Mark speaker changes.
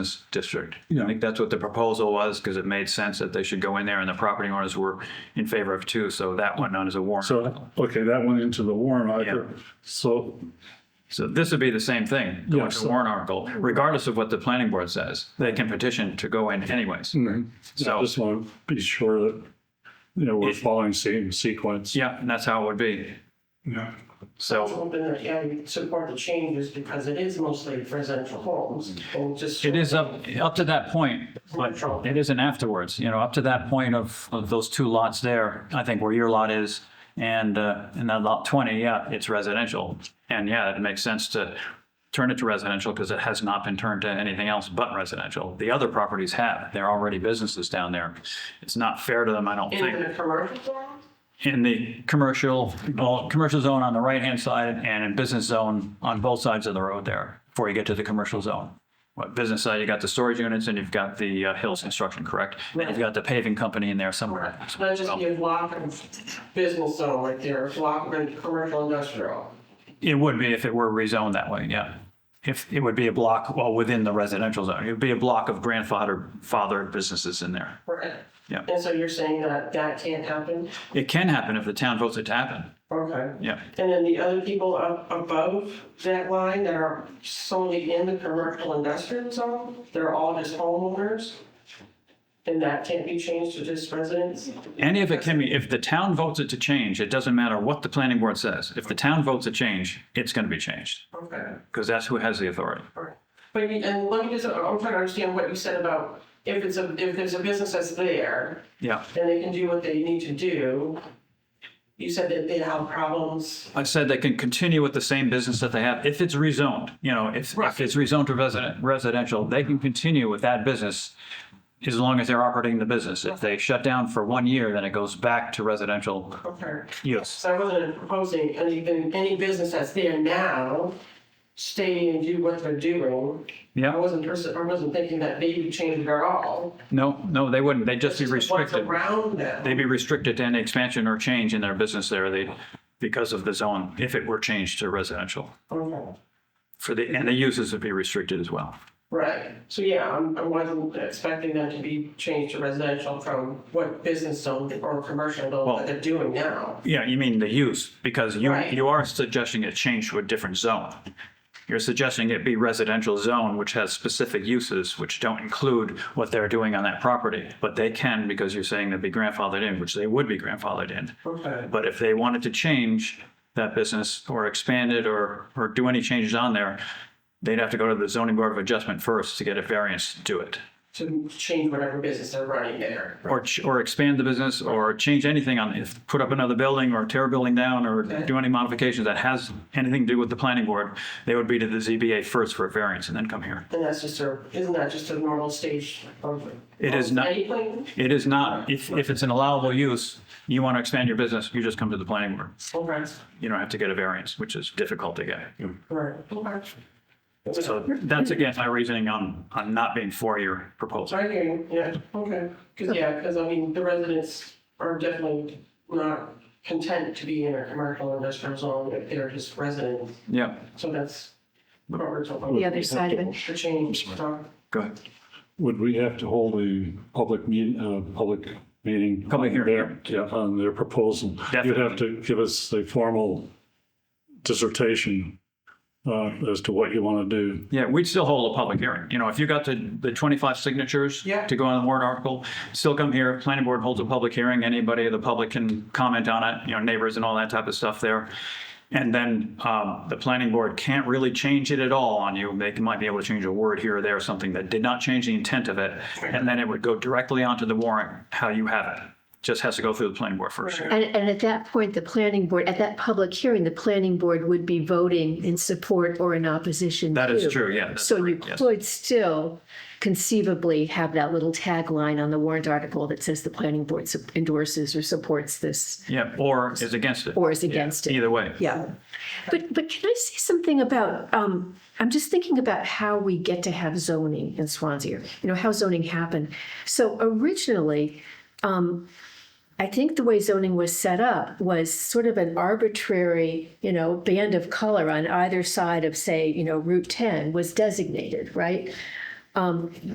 Speaker 1: business district.
Speaker 2: Yeah.
Speaker 1: I think that's what the proposal was, because it made sense that they should go in there, and the property owners were in favor of two, so that went on as a warrant.
Speaker 2: So, okay, that went into the warrant article. So,
Speaker 1: So this would be the same thing, going
Speaker 2: Yes.
Speaker 1: to warrant article, regardless of what the planning board says. They can petition to go in anyways.
Speaker 2: I
Speaker 1: So,
Speaker 2: Mm-hmm. just want to be sure that, you know, we're following same sequence.
Speaker 1: yeah, and that's how it would be.
Speaker 2: Yeah.
Speaker 1: So
Speaker 3: hoping that I support the changes because it is mostly residential homes. Or just
Speaker 1: it is up, up to that point, but it isn't afterwards, you know, up to that point of, of those two lots there, I think where your lot is, and, uh, and that lot 20, yeah, it's residential. And yeah, it makes sense to turn it to residential because it has not been turned to anything else but residential. The other properties have, they're already businesses down there. It's not fair to them, I don't think.
Speaker 3: in the commercial zone.
Speaker 1: in the commercial, well, commercial zone on the right-hand side and in business zone on both sides of the road there before you get to the commercial zone. What business side, you got the storage units and you've got the uh, Hills Construction, correct? And you've got the paving company in there somewhere.
Speaker 3: Not just be a block of business zone right there, a block of commercial industrial.
Speaker 1: It would be if it were rezoned that way, yeah. If, it would be a block, well, within the residential zone. It would be a block of grandfather, fathered businesses in there.
Speaker 3: Right.
Speaker 1: Yeah.
Speaker 3: And so you're saying that that can't happen?
Speaker 1: It can happen if the town votes it to happen,
Speaker 3: Okay.
Speaker 1: yeah.
Speaker 3: And then the other people up above that line that are solely in the commercial industrial zone, they're all just homeowners? And that can't be changed to just residents?
Speaker 1: Any of it can be, if the town votes it to change, it doesn't matter what the planning board says. If the town votes a change, it's going to be changed
Speaker 3: Okay.
Speaker 1: because that's who has the authority.
Speaker 3: Alright. But, you- and let me just, I'm trying to understand what you said about if it's a, if there's a business that's there,
Speaker 1: Yeah.
Speaker 3: then they can do what they need to do. You said that they have problems.
Speaker 1: I said they can continue with the same business that they have. If it's rezoned, you know, if, if
Speaker 3: Right.
Speaker 1: it's rezoned to resident, residential, they can continue with that business as long as they're operating the business. If they shut down for one year, then it goes back to residential
Speaker 3: Okay.
Speaker 1: use.
Speaker 3: So I wasn't proposing anything, any business that's there now, stay and do what they're doing. I
Speaker 1: Yeah.
Speaker 3: wasn't, pers- I wasn't thinking that they would change it at all.
Speaker 1: No, no, they wouldn't. They'd just be
Speaker 3: It's just
Speaker 1: restricted.
Speaker 3: What's around them.
Speaker 1: They'd be restricted to any expansion or change in their business there. They, because of the zone, if it were changed to residential.
Speaker 3: Okay.
Speaker 1: for the, and the uses would be restricted as well.
Speaker 3: Right, so yeah, I'm, I wasn't expecting them to be changed to residential from what business zone or commercial zone
Speaker 1: Well-
Speaker 3: that they're doing now.
Speaker 1: Yeah, you mean the use, because you,
Speaker 3: Right.
Speaker 1: you are suggesting it change to a different zone. You're suggesting it be residential zone, which has specific uses, which don't include what they're doing on that property. But they can, because you're saying they'd be grandfathered in, which they would be grandfathered in.
Speaker 3: Okay.
Speaker 1: But if they wanted to change that business or expand it or, or do any changes on there, they'd have to go to the zoning board of adjustment first to get a variance to do it.
Speaker 3: To change whatever business they're running there.
Speaker 1: or, ch- or expand the business or change anything on, if, put up another building or tear a building down or do any modifications that has anything to do with the planning board, they would be to the ZBA first for a variance and then come here.
Speaker 3: And that's just a, isn't that just a normal stage of?
Speaker 1: It is not-
Speaker 3: Anything?
Speaker 1: It is not, if, if it's an allowable use, you want to expand your business, you just come to the planning board.
Speaker 3: Okay,
Speaker 1: You don't have to get a variance, which is difficult to get.
Speaker 3: right, okay.
Speaker 1: So that's again my reasoning on, on not being for your proposal.
Speaker 3: I hear you, yeah, okay, because, yeah, because I mean, the residents are definitely not content to be in a commercial industrial zone if they're just residents.
Speaker 1: Yeah,
Speaker 3: So that's what we're talking about.
Speaker 4: The other side of it.
Speaker 3: The change, uh,
Speaker 1: go ahead.
Speaker 2: Would we have to hold a public meet, uh, public meeting?
Speaker 1: Public hearing.
Speaker 2: on their- Yeah, on their proposal. You'd have to give us a formal dissertation, uh, as to what you want to do.
Speaker 1: Yeah, we'd still hold a public hearing. You know, if you got the, the 25 signatures
Speaker 3: Yeah.
Speaker 1: to go on the warrant article, still come here, planning board holds a public hearing, anybody of the public can comment on it, you know, neighbors and all that type of stuff there. And then um, the planning board can't really change it at all on you. They might be able to change a word here or there, something that did not change the intent of it. And then it would go directly onto the warrant, how you have it. Just has to go through the planning board first.
Speaker 4: And, and at that point, the planning board, at that public hearing, the planning board would be voting in support or in opposition.
Speaker 1: That is
Speaker 4: to.
Speaker 1: true, yeah. that's
Speaker 4: So you
Speaker 1: correct, yes.
Speaker 4: could still conceivably have that little tagline on the warrant article that says the planning board sup- endorses or supports this
Speaker 1: Yeah, or is against it.
Speaker 4: or is against it.
Speaker 1: Either way.
Speaker 4: Yeah. But, but can I say something about, um, I'm just thinking about how we get to have zoning in Swansea, or, you know, how zoning happened. So originally, um, I think the way zoning was set up was sort of an arbitrary, you know, band of color on either side of, say, you know, Route 10 was designated, right? um,